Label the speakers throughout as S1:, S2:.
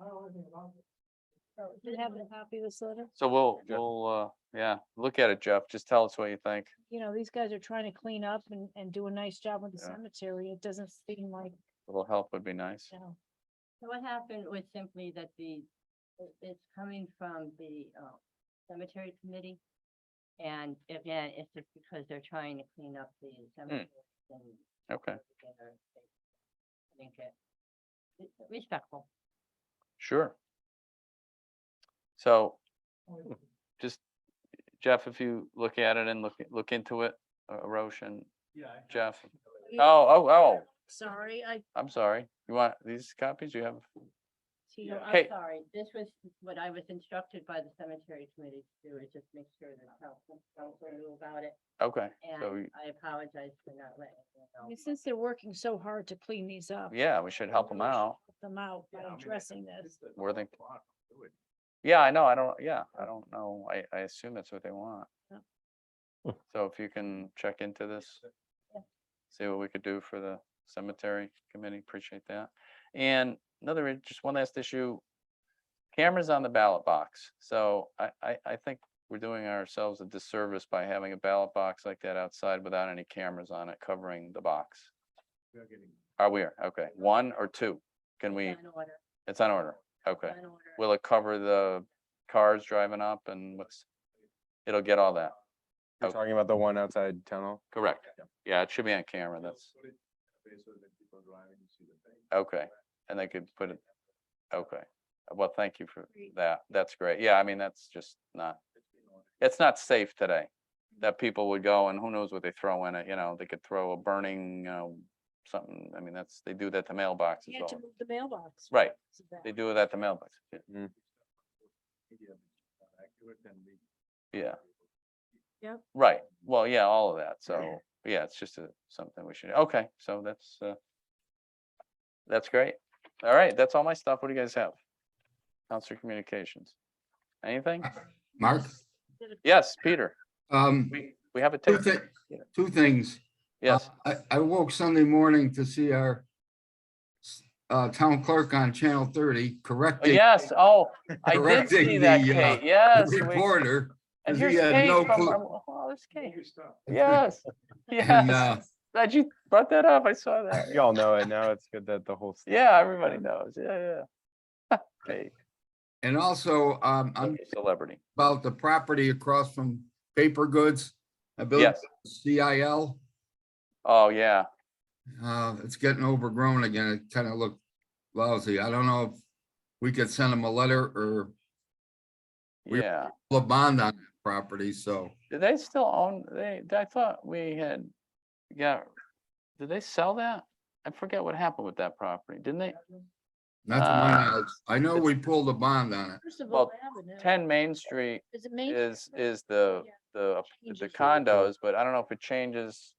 S1: know anything about it.
S2: Do you have a copy of this letter?
S3: So we'll,
S4: Jeff.
S3: we'll, uh, yeah, look at it, Jeff. Just tell us what you think.
S2: You know, these guys are trying to clean up and, and do a nice job with the
S3: Yeah.
S2: cemetery. It doesn't seem like,
S3: A little help would be nice.
S2: you know,
S5: So what happened was simply that the, it- it's coming from the uh, cemetery committee. And again, it's just because they're trying to clean up the cemetery and.
S3: Hmm. Okay,
S5: put together a- I think it, it's respectful.
S3: sure. So
S1: Only-
S3: just, Jeff, if you look at it and look, look into it, uh, Roche and
S4: Yeah. I-
S3: Jeff.
S2: Yeah.
S3: Oh, oh, oh,
S2: sorry, I,
S3: I'm sorry. You want these copies? You have,
S5: You know,
S3: Hey.
S5: I'm sorry, this was what I was instructed by the cemetery committee to do, is just make sure that council, council knew about it.
S3: okay, so,
S5: And
S3: we-
S5: I apologize for not letting you
S2: I
S5: know.
S2: mean, since they're working so hard to clean these up.
S3: yeah, we should help them
S2: really should
S3: out.
S2: help Them out by
S4: Yeah, I mean,
S2: addressing this.
S4: it's the
S3: Where they-
S4: block, do it.
S3: Yeah, I know, I don't, yeah, I don't know. I, I assume that's what they want.
S2: Yep.
S3: So if you can check into this,
S5: Yeah.
S3: see what we could do for the cemetery committee, appreciate that. And another, i- just one last issue. Cameras on the ballot box. So I, I, I think we're doing ourselves a disservice by having a ballot box like that outside without any cameras on it covering the box.
S4: We are getting-
S3: Are we, okay, one or two? Can we,
S5: It's on order,
S3: it's on order, okay.
S5: on order.
S3: Will it cover the cars driving up and what's, it'll get all that?
S6: You're
S3: Okay.
S6: talking about the one outside town hall?
S3: Oh. Correct.
S4: Yeah.
S3: Yeah, it should be on camera,
S4: We'll
S3: that's,
S4: put it in a place so that people driving can see the thing.
S3: okay, and they could put it, okay. Well, thank you for that, that's great, yeah, I mean, that's just not,
S4: It's been on.
S3: it's not safe today. That people would go and who knows what they throw in it, you know, they could throw a burning, you know, something, I mean, that's, they do that to mailboxes
S2: You had to
S3: all,
S2: move the mailbox.
S3: Right.
S2: because of that.
S3: they do that to mailboxes, yeah.
S6: Hmm.
S4: Media is not accurate and we-
S3: yeah.
S2: Yep.
S3: Right, well, yeah, all of that, so, yeah, it's just a, something we should, okay, so that's, uh. That's great, all right, that's all my stuff, what do you guys have? Counselor Communications, anything?
S7: Mark,
S3: Yes, Peter,
S7: um,
S3: we, we have a
S7: two
S3: tape,
S7: thi- two things. Uh,
S3: yes,
S7: I, I woke Sunday morning to see our uh, town clerk on Channel thirty correcting.
S3: yes, oh, I did
S7: correcting
S3: see that,
S7: the, uh,
S3: Kate, yes. we-
S7: Reporter,
S3: And
S7: he
S3: here's
S7: had
S3: Kate
S7: no
S3: from,
S7: clue.
S3: from- oh, there's Kate,
S4: New stuff.
S3: yes,
S7: and, uh,
S3: yes, glad you brought that up, I saw that,
S6: You all know it now. It's good that the whole. s-
S3: yeah, everybody knows, yeah, yeah. Kate,
S7: and also, um, I'm
S3: celebrity,
S7: about the property across from Paper Goods. I believe
S3: yes,
S7: CIL,
S3: oh, yeah.
S7: uh, it's getting overgrown again. It kind of looked lousy. I don't know if we could send them a letter or We-
S3: Yeah,
S7: a bond on that property, so.
S3: do they still own, they, I thought we had, got. did they sell that? I forget what happened with that property, didn't they?
S7: Not to my
S3: Uh,
S7: knowledge. I know we pulled a bond on it.
S2: First of
S3: Well,
S2: all, Avenue,
S3: Ten Main Street
S2: is it Main?
S3: is,
S2: Street?
S3: is the,
S2: Yeah,
S3: the,
S2: changes
S3: the
S2: the-
S3: condos, but I don't know if it changes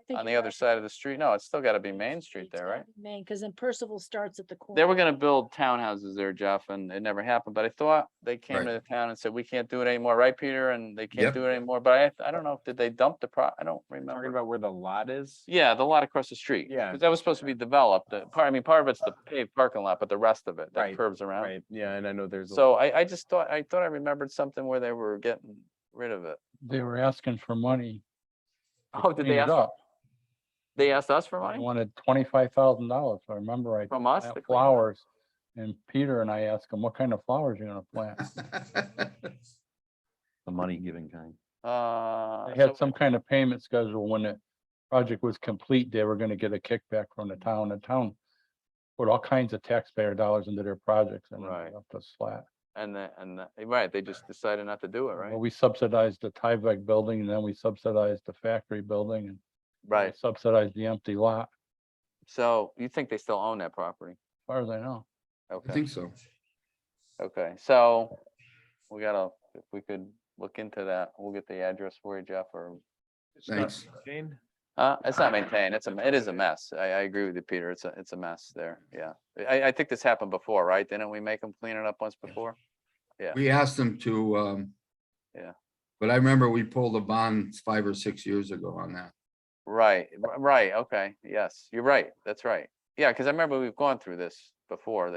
S2: I think
S3: on the
S2: you're
S3: other
S2: right.
S3: side of the street, no, it's still gotta be Main Street
S2: It's
S3: there,
S2: gotta
S3: right?
S2: be Main, because then Percival starts at the corner.
S3: They were gonna build townhouses there, Jeff, and it never happened, but I thought they came
S7: Right.
S3: to the town and said, we can't do it anymore, right, Peter? And they can't
S7: Yep.
S3: do it anymore, but I, I don't know, if did they dump the pro, I don't remember.
S6: Talking about where the lot is?
S3: Yeah, the lot across the street.
S6: Yeah.
S3: Because that was supposed to be developed. The part, I mean, part of it's the paved parking lot, but the rest of it, that
S6: Right,
S3: curves around.
S6: Right, yeah, and I know there's. a-
S3: So I, I just thought, I thought I remembered something where they were getting rid of it.
S8: they were asking for money. to
S3: Oh, did
S8: clean
S3: they
S8: it
S3: ask,
S8: up.
S3: they asked us for
S8: They
S3: money?
S8: wanted twenty-five thousand dollars, if I remember right.
S3: From us?
S8: plant
S3: to clean it up?
S8: Flowers, and Peter and I asked him, what kind of flowers you gonna plant?
S9: the money giving kind.
S3: Uh.
S8: They had
S3: so-
S8: some kind of payment schedule when the project was complete, they were gonna get a kickback from the town, the town put all kinds of taxpayer dollars into their projects and
S3: Right.
S8: up to slat.
S3: And the, and the, right, they just decided not to do it,
S8: Well,
S3: right?
S8: We subsidized the Tyvek building, and then we subsidized the factory building, and we
S3: Right.
S8: subsidized the empty lot,
S3: So you think they still own that property?
S8: as far as I know.
S7: I
S3: Okay,
S7: think so.
S3: okay, so we gotta, if we could look into that, we'll get the address for you, Jeff, or
S4: It's not
S7: Thanks.
S4: Jane?
S3: Uh, it's not maintained. It's a, m- it is a mess. I, I agree with you, Peter. It's a, it's a mess there. Yeah. I, I think this happened before, right? Didn't we make them clean it up once before?
S7: We asked them to, um.
S3: Yeah.
S7: But I remember we pulled a bond five or six years ago on that.
S3: Right, r- right. Okay. Yes, you're right. That's right. Yeah, because I remember we've gone through this before. They